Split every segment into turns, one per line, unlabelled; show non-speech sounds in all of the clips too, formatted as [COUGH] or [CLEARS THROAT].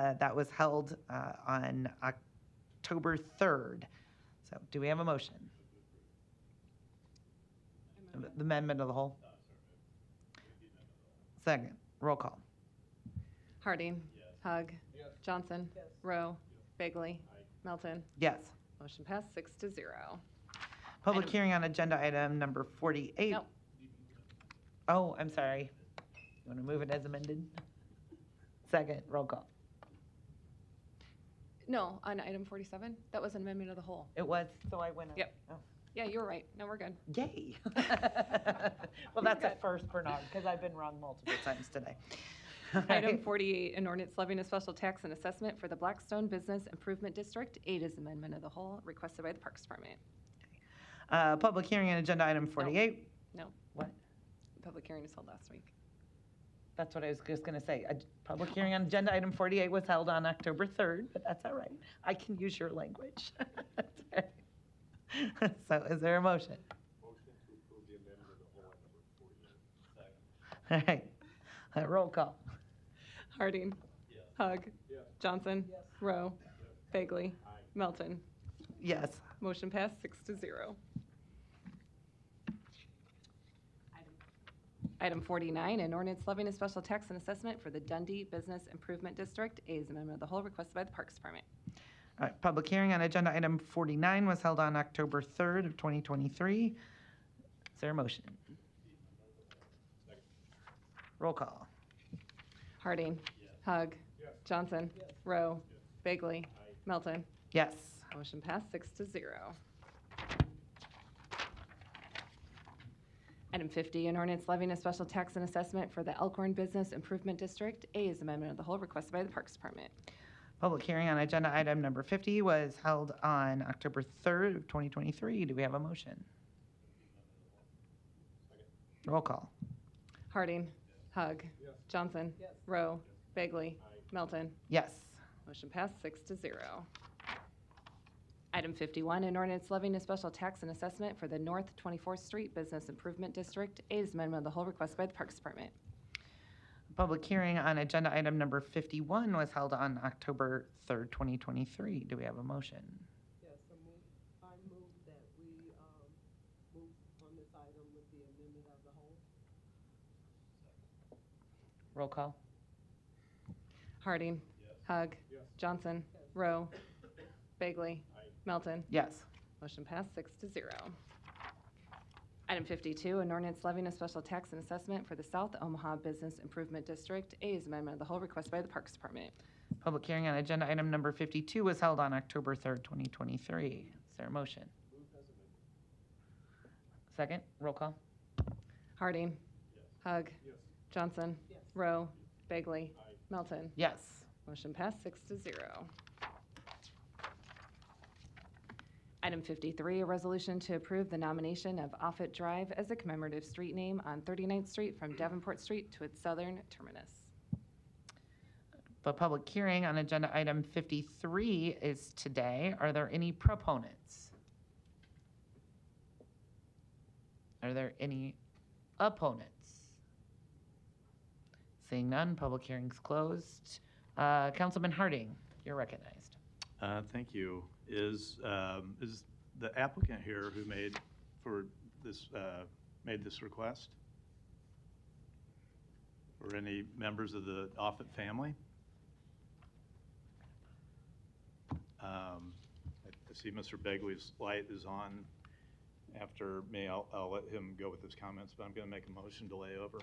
uh, that was held uh, on October 3rd. So do we have a motion? The Amendment of the whole? Second, roll call.
Harding. Hug. Johnson. Rowe. Bagley. Melton.
Yes.
Motion passed six to zero.
Public
Item-
hearing on agenda item number 48.
Nope.
Oh, I'm sorry. You want to move it as amended? Second, roll call.
No, on item 47, that was an amendment of the whole.
It was, so I went. on.
Yep.
Oh,
Yeah, you're right. No, we're good. [LAUGHS]
Yay. Well, that's a first, Bernard, because I've been wrong multiple times today. All
Item
right.
48, an ordinance levying a special tax and assessment for the Blackstone Business Improvement District. Eight is amendment of the whole requested by the Parks Department.
Uh, Public hearing on agenda item 48.
No.
What?
Public hearing was held last week.
That's what I was just going to say. A Public hearing on agenda item 48 was held on October 3rd, but that's all right. I can use your language. [LAUGHS] That's all right. [LAUGHS] So is there a motion? All right, Uh, roll call.
Harding. Hug. Johnson. Rowe. Bagley. Melton.
Yes.
Motion passed six to zero. Item 49, an ordinance levying a special tax and assessment for the Dundee Business Improvement District. A is amendment of the whole requested by the Parks Department.
All right, public hearing on agenda item 49 was held on October 3rd of 2023. Is there a motion? Roll call.
Harding. Hug. Johnson. Rowe. Bagley. Melton.
Yes.
Motion passed six to zero. Item 50, an ordinance levying a special tax and assessment for the Elkhorn Business Improvement District. A is amendment of the whole requested by the Parks Department.
Public hearing on agenda item number 50 was held on October 3rd of 2023. Do we have a motion? Roll call.
Harding. Hug. Johnson. Rowe. Bagley. Melton.
Yes.
Motion passed six to zero. Item 51, an ordinance levying a special tax and assessment for the North 24th Street Business Improvement District. A is amendment of the whole request by the Parks Department.
Public hearing on agenda item number 51 was held on October 3rd, 2023. Do we have a motion?
Yes, I move, I move that we, um, move on this item with the amendment of the whole.
Roll call.
Harding. Hug. Johnson. Rowe. Bagley. Melton.
Yes.
Motion passed six to zero. Item 52, an ordinance levying a special tax and assessment for the South Omaha Business Improvement District. A is amendment of the whole request by the Parks Department.
Public hearing on agenda item number 52 was held on October 3rd, 2023. Is there a motion? Second, roll call.
Harding. Hug. Johnson.
Yes.
Rowe. Bagley. Melton.
Yes.
Motion passed six to zero. Item 53, a resolution to approve the nomination of Offutt Drive as a commemorative street name on 39th Street from Davenport Street to its southern terminus.
The public hearing on agenda item 53 is today. Are there any proponents? Are there any opponents? Seeing none, public hearing's closed. Uh, Councilman Harding, you're recognized.
Uh, Thank you. Is, um, is the applicant here who made for this, uh, made this request? Or any members of the Offutt family? Um, I I see Mr. Begley's light is on after me. I'll, I'll let him go with his comments, but I'm going to make a motion to lay over.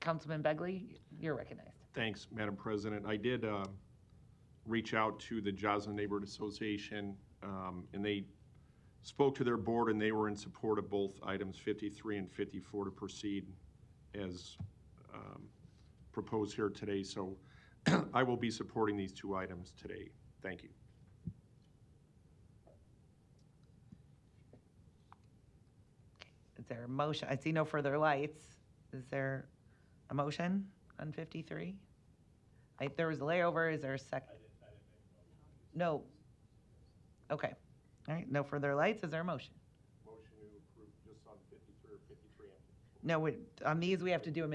Councilman Begley, you're recognized.
Thanks, Madam President. I did uh, reach out to the Joslin Neighborhood Association, um, and they spoke to their board, and they were in support of both items 53 and 54 to proceed as um, proposed here today. So [CLEARS THROAT] I will be supporting these two items today. Thank you.
Is there a motion? I see no further lights. Is there a motion on 53? I, there was a layover. Is there a second? No. Okay. All right, no further lights. Is there a motion?
Motion to approve just on 53 or 53
No, we- on these, we have to do them